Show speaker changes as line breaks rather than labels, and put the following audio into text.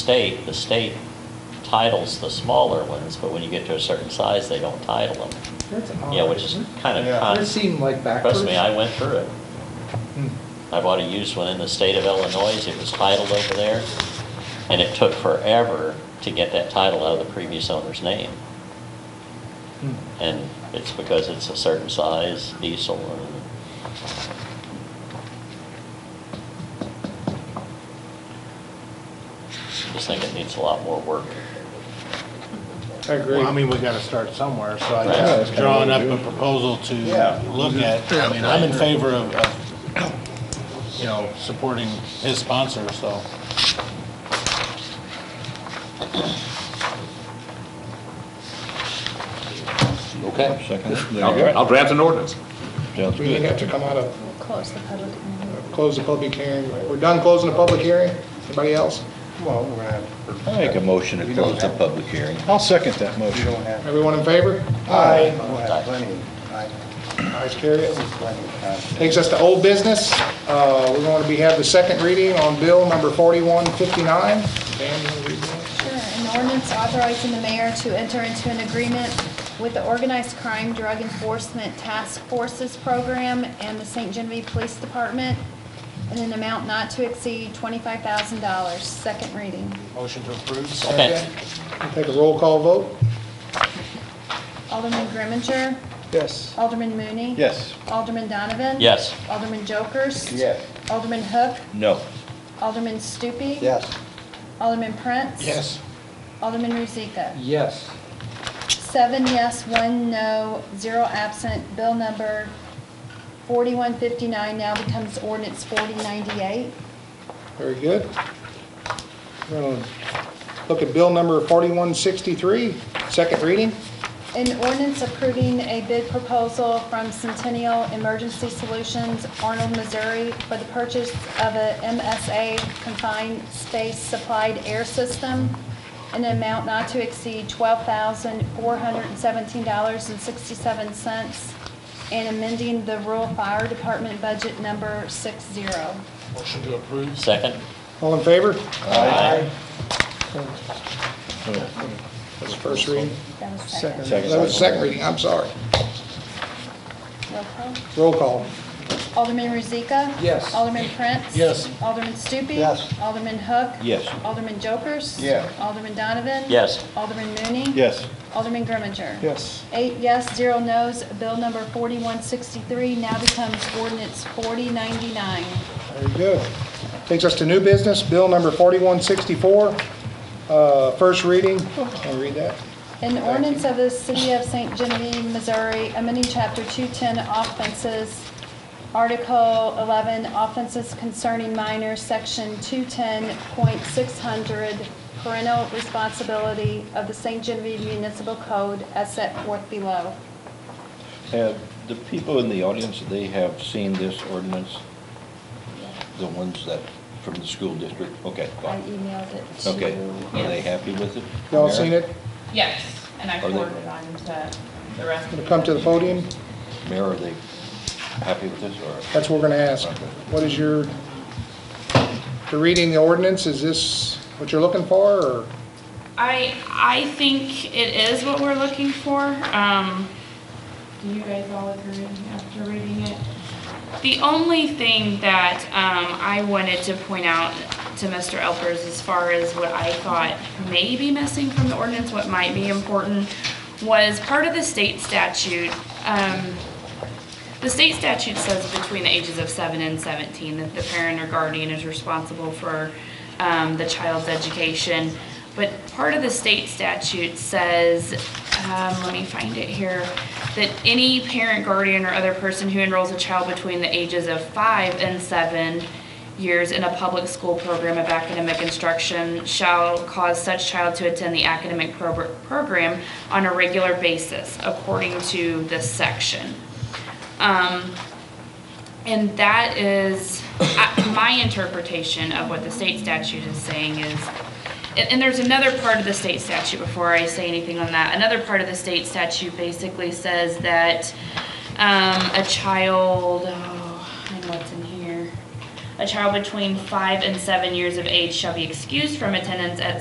state, the state titles the smaller ones, but when you get to a certain size, they don't title them.
That's odd.
Yeah, which is
isn't it?
kind of
Yeah.
con-
That seemed like backwards.
Trust me, I went through it.
Hmm.
I bought a used one in the state of Illinois, it was titled over there, and it took forever to get that title out of the previous owner's name.
Hmm.
And it's because it's a certain size diesel and just think it needs a lot more work.
I agree.
Well, I mean, we gotta start somewhere, so I
Right. Yeah,
that's
guess
kinda
drawing
what
up
we
a
do.
proposal to
Yeah.
look at, I mean, I'm in favor of, of, you know, supporting his sponsor, so.
Okay.
Second.
I'll dra- I'll draft an ordinance.
Sounds
We didn't
good.
have to come out of,
Close the public hearing.
close the public hearing. We're done closing the public hearing? Anybody else?
Well, we're gonna have.
I make a motion to
We don't
close the
have-
public hearing.
I'll second that
We
motion.
don't have.
Everyone in favor?
We'll have plenty of time.
Ayes, carry it.
Plenty of time.
Takes us to old business. Uh, We're going to be, have the second reading on bill number 4159. Dan, you wanna read that?
Sure, an ordinance authorizing the mayor to enter into an agreement with the Organized Crime Drug Enforcement Task Forces Program and the St. Genevieve Police Department in an amount not to exceed $25,000. Second reading.
Motion to approve.
Second.
We'll Take a roll call vote.
Alderman Grimminger?
Yes.
Alderman Mooney?
Yes.
Alderman Donovan?
Yes.
Alderman Jokers?
Yes.
Alderman Hook?
No.
Alderman Stupi?
Yes.
Alderman Prince?
Yes.
Alderman Rozika?
Yes.
Seven yes, one no, zero absent. Bill number 4159 now becomes ordinance 4098.
Very good. We're gonna Look at bill number 4163, second reading.
An ordinance approving a bid proposal from Centennial Emergency Solutions, Arnold, Missouri, for the purchase of a MSA confined space supplied air system in an amount not to exceed $12,417.67 and amending the rural fire department budget number 60.
Motion to approve.
Second?
All in favor?
Aye.
That's the first reading.
That was second.
That was the second reading, I'm sorry.
Roll call.
Roll call.
Alderman Rozika?
Yes.
Alderman Prince?
Yes.
Alderman Stupi?
Yes.
Alderman Hook?
Yes.
Alderman Jokers?
Yeah.
Alderman Donovan?
Yes.
Alderman Mooney?
Yes.
Alderman Grimminger?
Yes.
Eight yes, zero no's. Bill number 4163 now becomes ordinance 4099.
Very good. Takes us to new business, bill number 4164, uh, first reading. Can I read that?
An ordinance of the City of St. Genevieve, Missouri, amending Chapter 210 offenses, Article 11, offenses concerning minors, Section 210.600, parental responsibility of the St. Genevieve Municipal Code as set forth below.
Have the people in the audience, they have seen this ordinance? The ones that, from the school district? Okay,
I
fine.
emailed it to.
Okay. Are they happy with it?
Y'all seen
Mayor?
it?
Yes, and I
Are they-
forwarded on to the rest. of
Gonna come to the podium?
Mayor, are they happy with this or?
That's what we're gonna ask. What is your, the reading the ordinance, is this what you're looking for, or?
I, I think it is what we're looking for. Um, do you guys all agree after reading it? The only thing that, um, I wanted to point out to Mr. Elpers as far as what I thought may be missing from the ordinance, what might be important, was part of the state statute, um, The state statute says between the ages of seven and 17 that the parent or guardian is responsible for um, the child's education. But part of the state statute says, um, let me find it here, that any parent, guardian, or other person who enrolls a child between the ages of five and seven years in a public school program of academic instruction shall cause such child to attend the academic progr- program on a regular basis, according to this section. Um, and that is, I- my interpretation of what the state statute is saying is, and, and there's another part of the state statute, before I say anything on that, another part of the state statute basically says that, um, a child, oh, and what's in here? A child between five and seven years of age shall be excused from attendance at